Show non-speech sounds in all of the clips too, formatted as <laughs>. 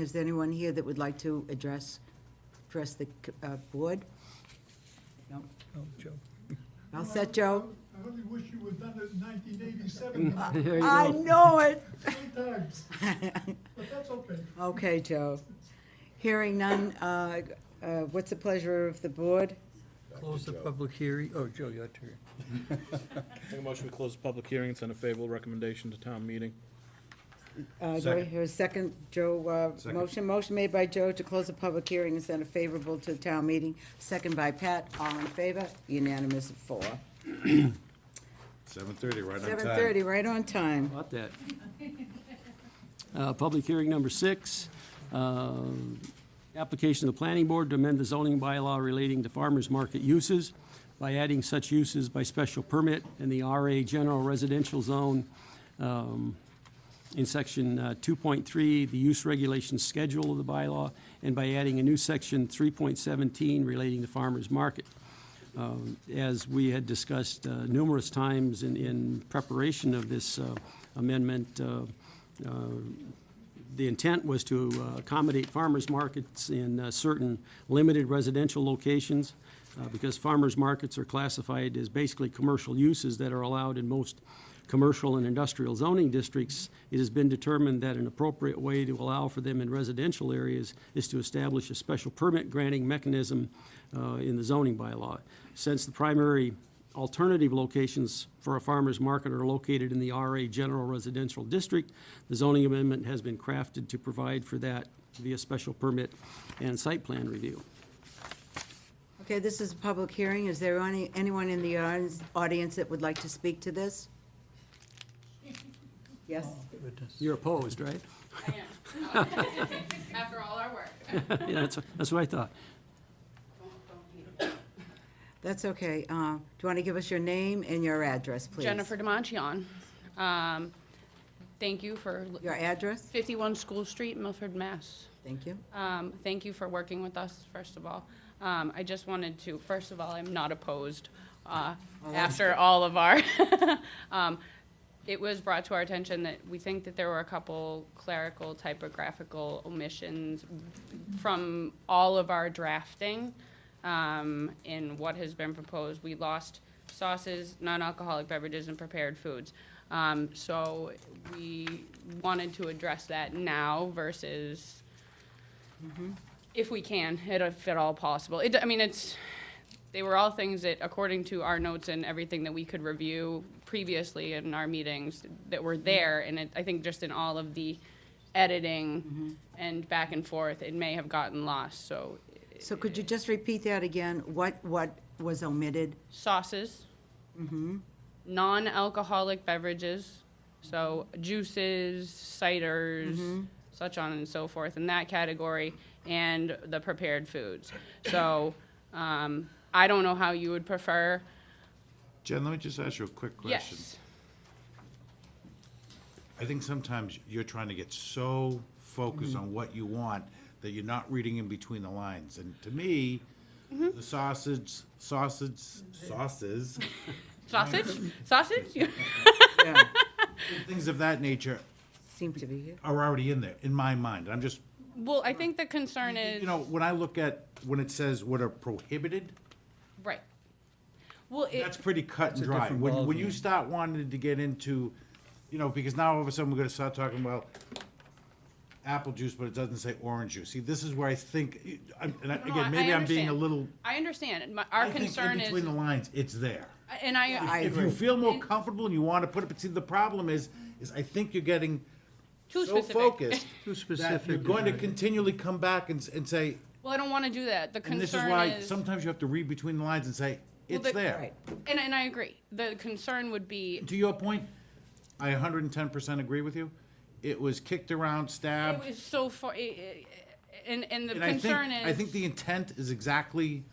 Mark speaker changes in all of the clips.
Speaker 1: Is there anyone here that would like to address, address the uh, board? No.
Speaker 2: Oh, Joe.
Speaker 1: All set, Joe?
Speaker 3: I really wish you were done in nineteen eighty-seven,
Speaker 1: <laughs> I know it.
Speaker 3: times, but that's okay.
Speaker 1: Okay, Joe. Hearing none, uh, uh, what's the pleasure of the board?
Speaker 2: Close the public hearing. Oh, Joe, your turn.
Speaker 4: Make a motion, we close the public hearing and send a favorable recommendation to town meeting.
Speaker 1: Uh, Do I hear a second, Joe, uh, motion? Motion made by Joe to close the public hearing and send a favorable to the town meeting, second by Pat, all in favor, unanimous of four.
Speaker 5: Seven thirty, right on time.
Speaker 1: Seven thirty, right on time.
Speaker 6: About that. Uh, Public hearing number six, uh, application of the planning board to amend the zoning bylaw relating to farmers market uses by adding such uses by special permit in the RA general residential zone. um, In section uh, 2.3, the use regulation schedule of the bylaw, and by adding a new section 3.17 relating to farmers market as we had discussed uh, numerous times in, in preparation of this uh, amendment, uh, uh, the intent was to uh, accommodate farmers markets in uh, certain limited residential locations, uh, because farmers markets are classified as basically commercial uses that are allowed in most commercial and industrial zoning districts. It has been determined that an appropriate way to allow for them in residential areas is to establish a special permit granting mechanism uh, in the zoning bylaw. Since the primary alternative locations for a farmer's market are located in the RA General Residential District. The zoning amendment has been crafted to provide for that via special permit and site plan review.
Speaker 1: Okay, this is a public hearing, is there any, anyone in the audience- audience that would like to speak to this? Yes?
Speaker 2: Goodness.
Speaker 6: You're opposed, right? <laughs>
Speaker 7: I am. After all our work.
Speaker 6: Yeah, that's, that's what I thought.
Speaker 1: That's okay. Uh, Do you want to give us your name and your address, please?
Speaker 7: Jennifer Demontion. Um, Thank you for
Speaker 1: Your address?
Speaker 7: 51 School Street, Milford, Mass.
Speaker 1: Thank you.
Speaker 7: Um, Thank you for working with us, first of all. Um, I just wanted to, first of all, I'm not opposed uh, after all of our, <laughs> Um, it was brought to our attention that we think that there were a couple clerical typographical omissions from all of our drafting um, in what has been proposed. We lost sauces, non-alcoholic beverages, and prepared foods. Um, So we wanted to address that now versus if we can, it- if at all possible. It, I mean, it's, they were all things that, according to our notes and everything that we could review previously in our meetings, that were there, and it, I think just in all of the editing and back and forth, it may have gotten lost, so
Speaker 1: So could you just repeat that again? What, what was omitted?
Speaker 7: sauces.
Speaker 5: Mm-hmm.
Speaker 7: Non-alcoholic beverages, so juices, ciders,
Speaker 5: Mm-hmm.
Speaker 7: such on and so forth in that category, and the prepared foods. So um, I don't know how you would prefer.
Speaker 5: Jen, let me just ask you a quick question.
Speaker 7: Yes.
Speaker 5: I think sometimes you're trying to get so focused on what you want that you're not reading in between the lines. And to me, the sausage, sausage, sauces, <laughs>
Speaker 7: Sausage? Sausage? <laughs>
Speaker 1: Yeah,
Speaker 5: things of that nature
Speaker 1: Seemed to be here.
Speaker 5: are already in there, in my mind. I'm just,
Speaker 7: well, I think the concern is.
Speaker 5: you know, when I look at, when it says what are prohibited,
Speaker 7: right. Well, it,
Speaker 5: That's pretty cut and
Speaker 2: a
Speaker 5: dry.
Speaker 2: different
Speaker 5: When, when you
Speaker 2: ballgame.
Speaker 5: start wanting to get into, you know, because now all of a sudden we're gonna start talking about apple juice, but it doesn't say orange juice. See, this is where I think, I'm- and I-
Speaker 7: no, I-
Speaker 5: again,
Speaker 7: I
Speaker 5: maybe I'm being a
Speaker 7: understand.
Speaker 5: little,
Speaker 7: I understand. My,
Speaker 5: I
Speaker 7: our
Speaker 5: think in
Speaker 7: concern is,
Speaker 5: between the lines, it's there.
Speaker 7: and
Speaker 5: <laughs>
Speaker 7: I,
Speaker 1: I
Speaker 5: If you
Speaker 1: agree.
Speaker 5: feel more comfortable and you wanna put it, but see, the problem is, is I think you're getting
Speaker 7: too
Speaker 5: so
Speaker 7: specific.
Speaker 5: focused
Speaker 2: Too
Speaker 5: that you're
Speaker 2: specific.
Speaker 5: going to continually come back and, s- and say,
Speaker 7: Well, I don't want to do that. The concern
Speaker 5: and this is why
Speaker 7: is
Speaker 5: sometimes you have to read between the lines and say,
Speaker 7: Well,
Speaker 5: it's
Speaker 7: the-
Speaker 5: there.
Speaker 1: Right.
Speaker 7: And, and I agree. The concern would be,
Speaker 5: to your point, I 110% agree with you. It was kicked around,
Speaker 7: it
Speaker 5: stabbed,
Speaker 7: was so far, i- i- and, and the
Speaker 5: and I think,
Speaker 7: concern
Speaker 5: I think
Speaker 7: is,
Speaker 5: the intent is exactly,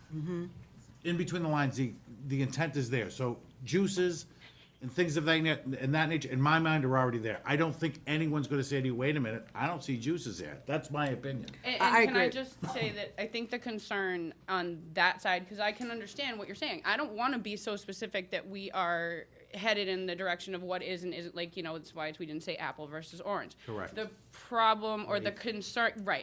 Speaker 5: in between the lines, the, the intent is there. So juices, and things of that, na- and that nature, in my mind, are already there. I don't think anyone's gonna say to you, wait a minute, I don't see juices there. That's my opinion.
Speaker 7: And,
Speaker 1: I-
Speaker 7: and
Speaker 1: I
Speaker 7: can I
Speaker 1: agree.
Speaker 7: just say that I think the concern on that side, because I can understand what you're saying. I don't want to be so specific that we are headed in the direction of what is and isn't. Like you know, it's why we didn't say apple versus orange.
Speaker 5: Correct.
Speaker 7: The problem or the concern, right?